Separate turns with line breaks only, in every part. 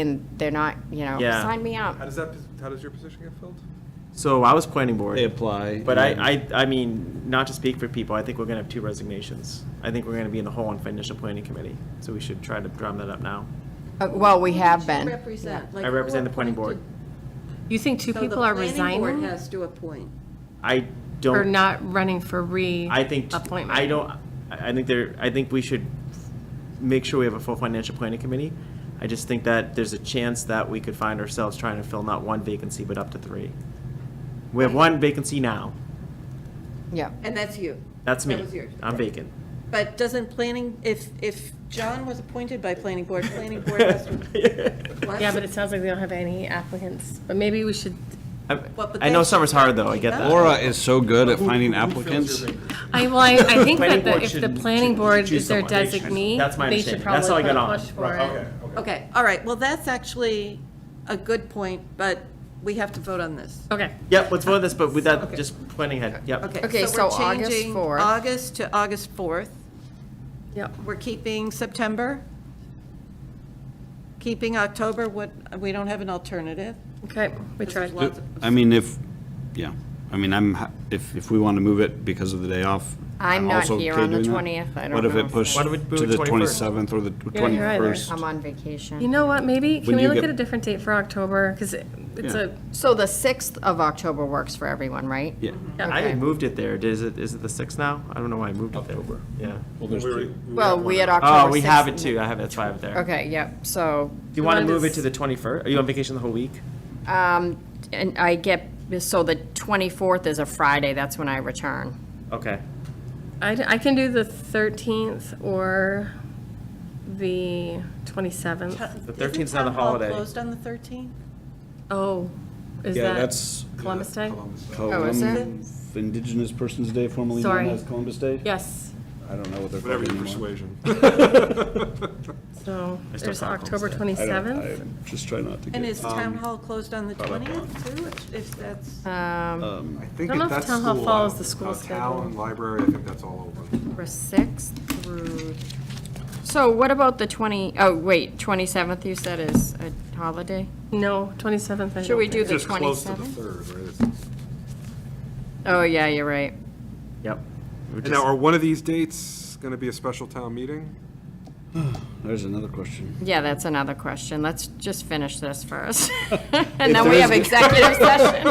and they're not, you know,
Yeah.
sign me up.
How does that, how does your position get filled?
So I was planning board.
They apply.
But I, I, I mean, not to speak for people, I think we're gonna have two resignations. I think we're gonna be in the hole on financial planning committee, so we should try to drum that up now.
Uh, Well, we
Who
have
did you
been.
represent? Like,
I
who
represent the planning board.
appointed-
You think two
So the
people are
Planning board
resigning
has to appoint.
I
or
don't,
not running for
I think,
reappointment?
I don't, I I think there, I think we should make sure we have a full financial planning committee. I just think that there's a chance that we could find ourselves trying to fill not one vacancy, but up to three. We have one vacancy now.
Yeah.
And that's you.
That's me. Um,
That was yours.
I'm vacant.
But doesn't planning, if, if John was appointed by planning board, planning board has to. What?
Yeah, but it sounds like we don't have any applicants, but maybe we should.
I-
Well, but
I know
that's-
summer's hard, though, I get that.
Laura is so good at finding applicants.
I, well, I, I think
Planning
that the-
board
if the
shouldn't
planning
choo-
board
choose
is their
someone. They should-
designee,
that's my
they should
understanding. That's
probably
how I
put
got
a
on.
push for
Right,
it.
Okay, all right, well, that's actually a good point, but we have to vote on this.
Okay,
Yep, let's vote this, but with that, just planning ahead, yep.
Okay,
we're
so August
changing
4th.
August to August 4th.
yep.
We're keeping September. Keeping October, what, we don't have an alternative.
Okay, we tried.
Lots of-
I mean, if, yeah, I mean, I'm, ha- if, if we want to move it because of the day off.
I'm not
also
here
okay
on the
doing that.
20th. I don't
What if
know
it
if-
pushed
Why don't we do
to
the
the
21st?
27th or the
You're here either.
21st?
I'm on
You
vacation.
know what, maybe, can
When
we
you
look
get-
at a different date for October? Because it's
Yeah.
a,
So the 6th of October works for everyone, right?
Yeah,
I had moved it there, is it, is it the sixth now? I don't know why I moved it there. October. Yeah.
well, there's two.
Well, we had October 6th.
Oh, we have it too, I have, it. that's why I have it there.
Okay, yep, so,
Do you want to
Mine
move it
is-
to the twenty-first? Are you on vacation the whole week?
um, and I get, so the 24th is a Friday, that's when I return.
Okay.
I, I can do the 13th or the 27th.
Isn't
thirteenth's not a
town hall
holiday.
Closed on the 13th?
Oh, is
Yeah,
that
that's
Columbus Day?
Oh, is it?
Columbus, Indigenous Persons Day, formerly known
Sorry.
as Columbus Day?
Yes,
I don't know what they're
Whatever
called
your
anymore.
persuasion.
so
still
there's
thought
October
Columbus
I don't,
27th.
I just try not to get.
And is town
Um,
hall closed on the
thought about
20th too, if- if that's?
Uh.
Um,
um,
I think
I
if
don't know if
that's
town hall
school,
follows
uh,
the school
uh, Town,
schedule.
library, I think that's all open.
for 6th through, so what about the 20, oh, wait, 27th you said is a holiday?
No, 27th. I
Should we
don't
do
think.
the
Just close to the
27th?
third, right? It's-
Oh, yeah, you're right.
Yep. We're
And
just-
now, are one of these dates going to be a special town meeting?
there's another question.
Yeah, that's another question. Let's just finish this first. And
If
then
there
we
is
have
a-
executive session.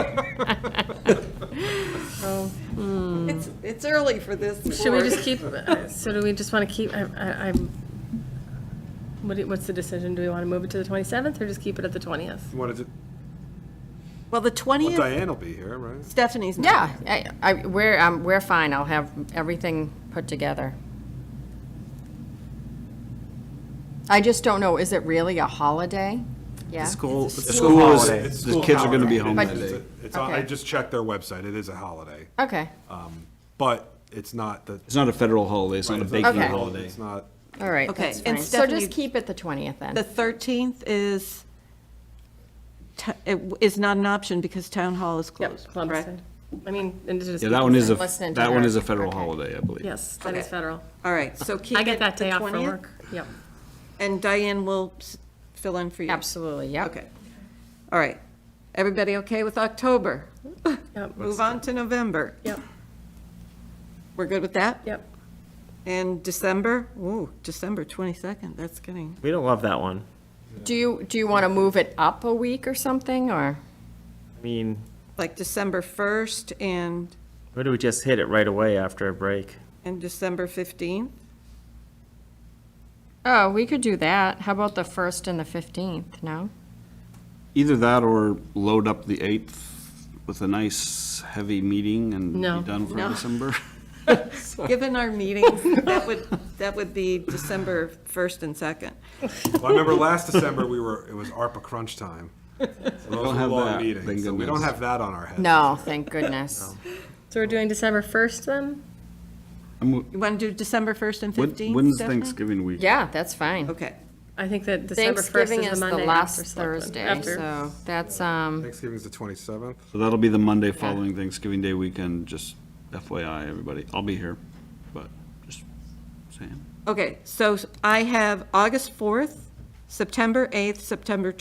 So,
It's, it's early for this.
Should we
board.
just keep, uh, so do we just want to keep, I- I- I'm, what do- what's the decision? Do we want to move it to the 27th or just keep it at the 20th?
You wanted to,
Well, the
well,
20th,
Diane will be here, right?
Stephanie's not.
Yeah, I, I, we're, um, we're fine. I'll have everything put together. I just don't know, is it really a holiday?
The
Yeah.
school, the
School
school
is,
holiday.
the kids are gonna be home
But-
that
It's
day.
a- It's, on- I
Okay.
just checked their website, it is a holiday,
Okay,
but it's not the.
It's not a federal holiday, it's not a
it's
banking
Okay.
holiday.
It's not,
all right,
Okay,
that's
and
fine. So
Stephanie-
just keep it the 20th
The
then.
13th is, t- it is not an option because town hall is
Yep,
closed,
Columbus
correct?
Day. I mean, and to just.
Yeah, that one is a,
Listening to
that one
her.
is a federal
Okay.
holiday, I believe.
Yes, that is
Okay.
federal.
All right, so keep
I get
it
that
the
day off from
20th,
work. Yep.
And Diane will s- fill in for you.
Absolutely, yep.
Okay. All right. Everybody okay with October?
Yep.
Move on to November.
Yep,
We're good with that?
yep.
And December? Ooh, December 22nd, that's getting,
We don't love that one.
Do you, do you want to move it up a week or something, or?
I mean,
like December 1st and,
why do we just hit it right away after a break?
and December 15th?
Oh, we could do that. How about the 1st and the 15th, no?
Either that or load up the 8th with a nice heavy meeting and be
No.
done for
No.
December.
Given our meetings, that would, that would be December 1st and 2nd.
well, I remember last December, we were, it was ARPA crunch time. So Those
don't
were
have
long
that, thank
meetings, so we don't
goodness.
have that on our head.
No, thank goodness.
So we're doing December 1st then?
I'm w-
You want to do December 1st and
when-
15th?
When's
Stephanie?
Thanksgiving week?
Yeah, that's fine.
Okay,
I think that December 1st
Thanksgiving
is
is
the
the
Monday
last
after Selectmen-
Thursday,
after-
so that's, um,
Thanksgiving's the twenty-seventh.
So that'll be the Monday following Thanksgiving Day weekend, just FYI, everybody. I'll be here, but just saying.
okay, so I have August 4th, September 8th, September